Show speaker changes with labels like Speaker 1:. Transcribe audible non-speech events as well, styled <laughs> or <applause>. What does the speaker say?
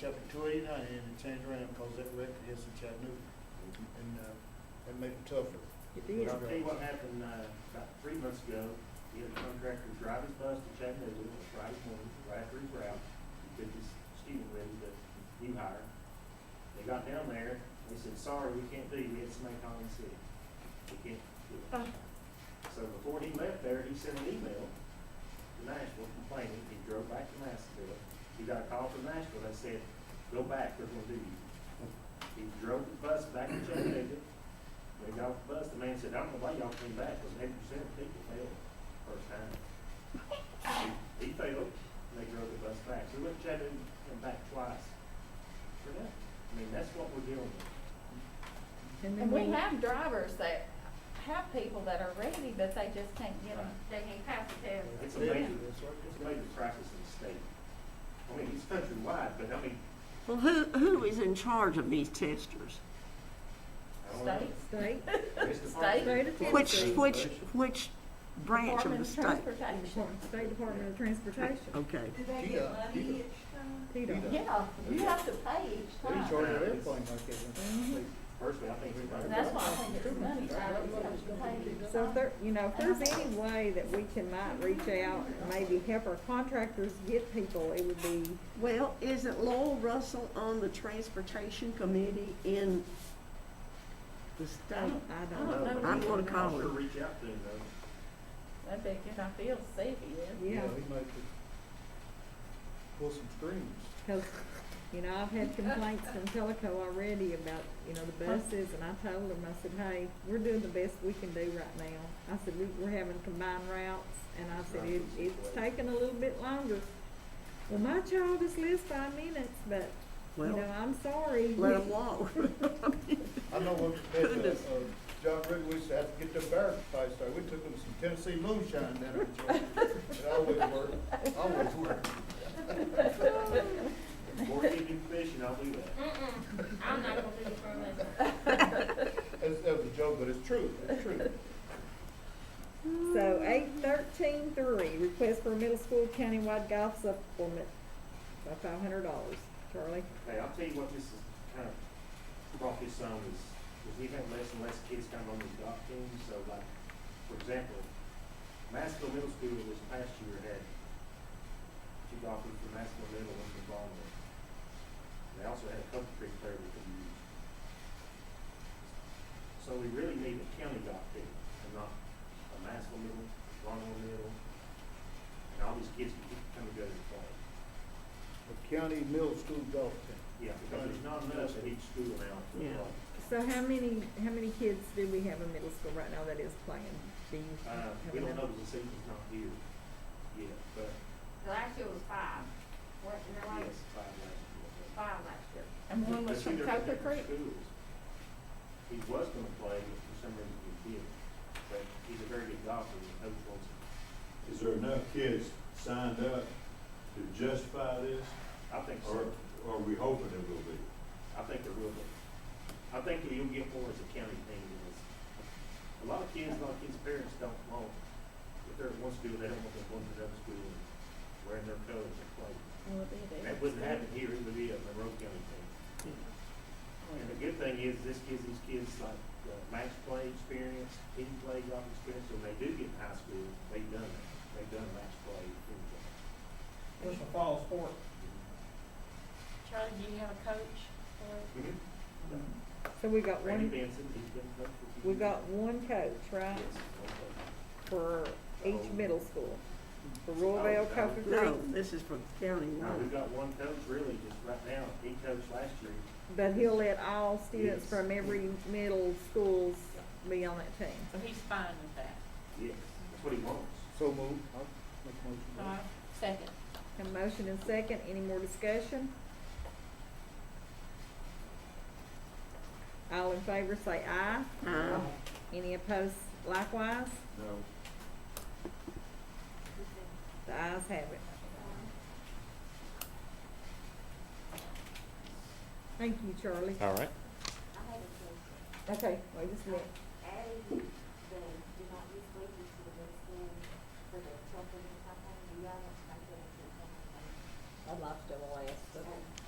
Speaker 1: chapter two eighty-nine and change around, cause that record is in Chattanooga, and, uh, that make it tougher.
Speaker 2: It
Speaker 1: Yeah.
Speaker 2: is.
Speaker 3: Well, I think what happened, uh, about three months ago, he had a contractor drive his bus to Chattanooga, it was Friday morning, right after his route, he took his student with him, the new hire. They got down there, they said, sorry, we can't do, you. we had somebody calling the city, we can't do it.
Speaker 2: Uh.
Speaker 3: So before he left there, he sent an email to Nashville complaining, he drove back to Nashville, he got a call from Nashville, that said, go back, they're gonna do you. He drove the bus back to Chattanooga, they got off the bus, the man said, I don't know why y'all came back, because eighty percent of people failed the first time. He- He failed, and they drove the bus back, so we went to Chattanooga and back twice. For that, I mean, that's what we're dealing with.
Speaker 2: then
Speaker 4: And
Speaker 5: Mhm.
Speaker 4: we have drivers that have people that are ready, but they just can't get them.
Speaker 3: Right.
Speaker 6: They ain't pass the test.
Speaker 3: It's
Speaker 1: Yeah,
Speaker 3: amazing.
Speaker 1: that's right.
Speaker 3: It's a major crisis in the state. I mean, it's countrywide, but I mean,
Speaker 5: Well, who, who is in charge of these testers?
Speaker 3: I don't know.
Speaker 4: States.
Speaker 2: State,
Speaker 3: It's the
Speaker 4: State?
Speaker 2: State of
Speaker 5: Which,
Speaker 2: Tennessee.
Speaker 5: which, which branch of
Speaker 4: Department
Speaker 5: the
Speaker 4: of
Speaker 5: state?
Speaker 4: Transportation.
Speaker 2: State Department of Transportation,
Speaker 5: Okay,
Speaker 7: Do they
Speaker 1: Yeah,
Speaker 7: get
Speaker 1: yeah.
Speaker 7: money each time?
Speaker 2: PDOT.
Speaker 4: Yeah, you have to pay each
Speaker 1: They
Speaker 4: time.
Speaker 1: charge everything like that.
Speaker 7: Mm-hmm.
Speaker 1: huh?
Speaker 3: Personally, I think
Speaker 4: And
Speaker 3: it's.
Speaker 4: That's why I think it's money, I don't know, you have to pay each
Speaker 2: So if there,
Speaker 4: time.
Speaker 2: you know, if there's any way that we can might reach out, and maybe help our contractors get people, it would be,
Speaker 5: well, isn't Lowell Russell on the transportation committee in the state?
Speaker 2: I
Speaker 4: I
Speaker 2: don't
Speaker 4: don't
Speaker 2: know.
Speaker 4: know.
Speaker 5: I'm gonna
Speaker 3: I'll
Speaker 5: call
Speaker 3: sure
Speaker 5: her.
Speaker 3: reach out to him though.
Speaker 4: I bet you I feel safe
Speaker 6: <laughs>
Speaker 4: he is.
Speaker 2: Yeah,
Speaker 1: He might could pull some strings.
Speaker 2: cause, you know, I've had complaints from Teleco already about, you know, the buses, and I told them, I said, hey, we're doing the best we can do right now. I said, we, we're having combined routes, and I said, it, it's taking a little bit longer. Well, my child is lives five minutes, but, you
Speaker 5: Well,
Speaker 2: know, I'm sorry. <laughs>
Speaker 5: let them walk. <laughs>
Speaker 1: I know when, at, uh,
Speaker 5: Goodness.
Speaker 1: uh, John Ridley, we used to have to get them barrel supplies, so we took them some Tennessee moonshine down in Georgia. It always worked, always worked.
Speaker 3: Before he do fishing, I'll do that.
Speaker 6: Mm-mm, I'm not gonna do it for a lesson.
Speaker 1: That's, that was a joke, but it's true, it's true.
Speaker 2: So eight thirteen three, request for a middle school countywide golf supplement by five hundred dollars. Charlie?
Speaker 3: Hey, I'll tell you what this is kind of brought this on is, is we've had less and less kids kind of on these golf teams, so like, for example, Massville Middle School this past year had two golfers from Massville Middle, one from Barnwell. And They also had a couple creek player we could use. So we really need a county golf team and not a Massville Middle, Barnwell Middle, and all these kids can keep coming together and play.
Speaker 1: A county middle school golf team.
Speaker 3: Yeah, because there's not enough at each school now to
Speaker 5: Yeah.
Speaker 3: apply.
Speaker 2: So how many, how many kids do we have in middle school right now that is playing? Do you
Speaker 3: Uh,
Speaker 2: have
Speaker 3: we don't
Speaker 2: enough?
Speaker 3: know if the season's not here yet, but
Speaker 6: The Last year was five. What, is that right?
Speaker 3: yes, five last
Speaker 6: Five last year.
Speaker 4: And
Speaker 3: year.
Speaker 4: one was
Speaker 3: But
Speaker 4: from
Speaker 3: they're
Speaker 4: Coker
Speaker 3: different
Speaker 4: Creek.
Speaker 3: Schools. He was gonna play, but for some reason he didn't. But he's a very good golfer, and Coach wants him.
Speaker 8: Is there enough kids signed up to justify this,
Speaker 3: I think
Speaker 8: or
Speaker 3: so.
Speaker 8: or are we hoping there will be?
Speaker 3: I think there will be. I think that you'll get more as a county thing than this. A lot of kids, a lot of kids' parents don't want, if they're at one school, they don't want them going to another school and wearing their colors and playing.
Speaker 4: Well, it is.
Speaker 3: That wouldn't happen here, it would be a Monroe County thing. And the good thing is, this gives these kids like uh, match play experience, team play, golf experience, so when they do get in high school, they've done it, they've done match play, team play.
Speaker 2: It's a
Speaker 3: fall sport. Mm-hmm.
Speaker 6: Charlie, do you have a coach for it?
Speaker 2: So we got
Speaker 3: Randy
Speaker 2: one,
Speaker 3: Benson, he's been coach for.
Speaker 2: we got one coach, right,
Speaker 3: Yes. Oh. one
Speaker 2: for each middle school? For
Speaker 3: Oh,
Speaker 2: Royalville, Coker Creek,
Speaker 5: No, this is for county
Speaker 3: coach. Now, we've
Speaker 5: wide.
Speaker 3: got one coach really just right now, he coached last year,
Speaker 2: but he'll let all students
Speaker 3: Yes.
Speaker 2: from every middle schools be on that team.
Speaker 9: So he's fine with that.
Speaker 3: yes, that's what he wants.
Speaker 1: So moved, I'll make a motion.
Speaker 9: All
Speaker 4: Uh,
Speaker 9: right, second.
Speaker 2: A motion and second, any more discussion? All in favor say aye.
Speaker 5: Uh,
Speaker 2: Any opposed likewise?
Speaker 8: No.
Speaker 2: The ayes have it. Thank you, Charlie.
Speaker 10: All right.
Speaker 7: I have a question.
Speaker 2: Okay, wait just a minute.
Speaker 7: Adding the, do not use wages to the middle school for the children or something, do y'all, I feel like it's something.
Speaker 9: I'd like to ask, but